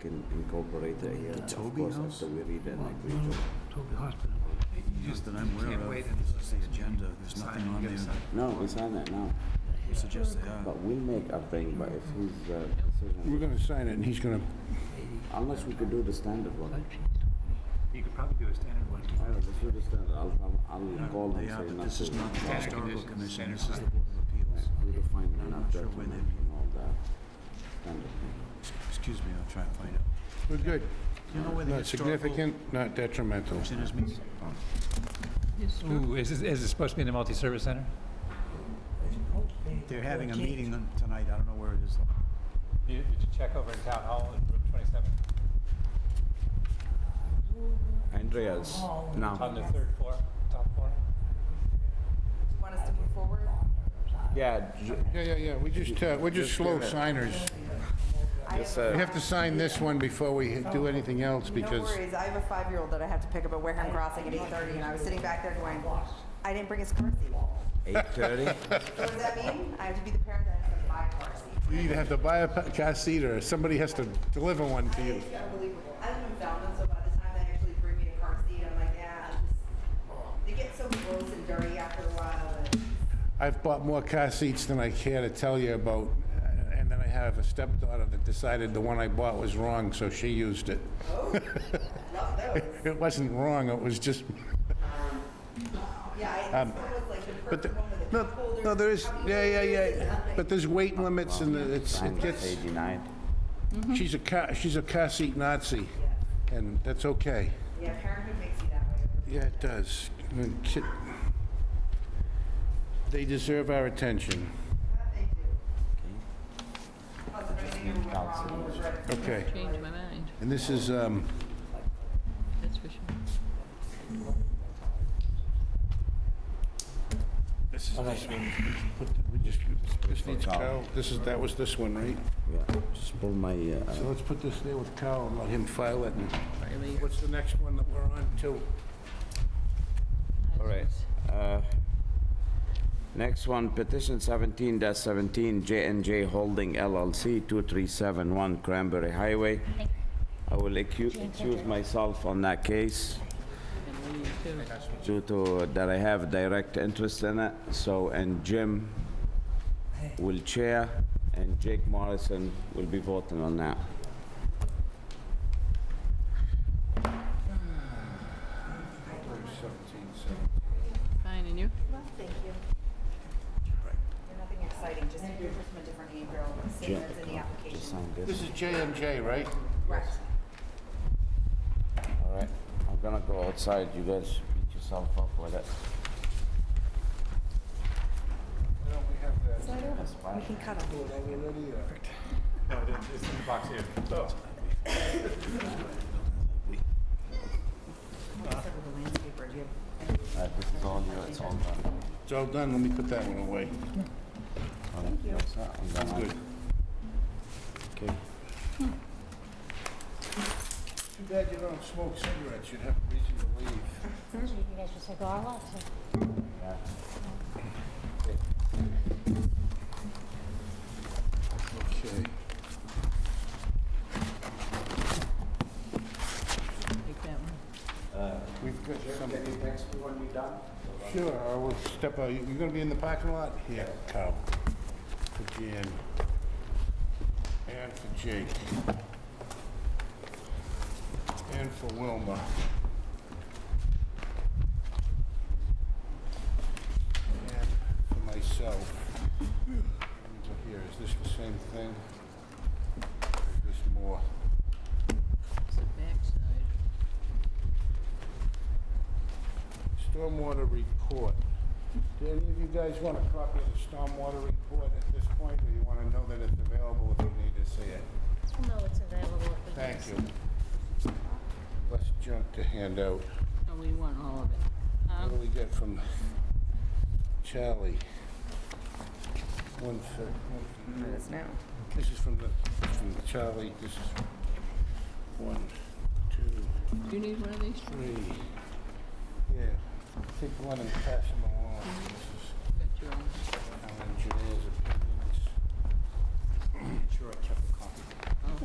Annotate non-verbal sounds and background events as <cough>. can incorporate it here. The Of Toby course, House? After we read and agree to it. Toby Hospital. Just that I'm aware Can't of, wait is the agenda, there's Sign, nothing you on there gotta sign. that No, we sign that now, would suggest they are. but we'll make our thing, but if he's, uh, decision- We're gonna sign it, and he's gonna, unless we could do the standard one. You could probably do a standard one. All right, let's do the standard, I'll, I'll- I'll call They and are, say but not this is to. not the Standard historical conditions, commission, standard this is the Board of Appeals. We define the I'm not sure where judgment they- and all that. Standard. Excuse me, I'll try and find out. we're good. You know where the Not historical commission uh, significant, not detrimental. is meeting? Ooh, is, this- is it supposed to be in the multi-service center? They're having a meeting on- tonight, I don't know where it is. though. You, did you check over in town hall in room twenty-seven, Andreas, on Oh. now, the third floor, top floor? Want us to move forward? yeah, ju- Yeah, yeah, yeah, we just, uh, we're just slow signers. I yes, have a- We have to sign this one before we do anything else, No because worries, I have a five-year-old that I have to pick up at Wareham Crossing at 8:30, and I was sitting back there going, I didn't bring his car seat. What eight <laughs> thirty? does that mean? I have to be the parent that has to buy a car seat. you either have to buy a pa- car seat, or somebody has to deliver one to you. It's unbelievable. I live in Falmouth, so by the time they actually bring me a car seat, I'm like, yeah, I'm just- they get so gross and dirty after a while, and I've bought more car seats than I care to tell you about, uh, and then I have a stepdaughter that decided the one I bought was wrong, so she used it. love those. It wasn't wrong, it was just, Yeah, I- it's almost like the Um, but, the- perfect one with the no, cup holder. no, there is, How do you yeah, yeah, do this? yeah, I'm like, but there's weight limits, and it's, it Signed gets, eighty-nine. she's a car, she's a car seat Nazi, and that's okay. Yeah, parenthood makes you that way. Yeah, it does. And ki- They deserve our attention. Okay, Change my mind, and this is, um, that's for sure. this is, Oh, we just, this needs Carl, this is, that was this one, right? Yeah, just pull my, uh, So let's put this there with Carl and let him file it. and- What's the next one that we're on to? All right. uh, Next one, petition 17-17, j and J Holding LLC, 2371 Cranberry Highway. I will accu- accuse myself on that case due to that I have direct interest in it, so, and Jim will chair, and Jake Morrison will be voting on that. Fine, and you? Thank you. Nothing exciting, just you're just from a different name, Bill, same Jim, as in the just application. sign this. This is J and J, right? Right. All right, I'm gonna go outside, you guys beat yourself up with it. We can cut them. No, it's in the box here. Uh, This is all you, it's all done. It's all done, let me put that one away. Thank you. I'm good. Okay. Too bad you don't smoke cigarettes, you'd have a reason to leave. You guys just like, oh, I want to. Okay. Take that one. We've got some. Can you text me when you're done? Sure, I will step out. You're gonna be in the parking lot? Yeah, Carl. For Jan. And for Jake. And for Wilma. And for myself. Over Here, is this the same thing? Or is this more? It's the backside. Stormwater report. Do any of you guys want a copy of the stormwater report at this point, or you want to know that it's available if you need to see it? We'll know it's available if we Thank can- you. Less junk to hand out. No, Oh, we want all of What it. do Um, we get from Charlie? One for, one It is now. for- this is from the, from Charlie, this is one, two, Do you need one of these? three. Yeah, take one and pass them along. This is Got your own. our engineer's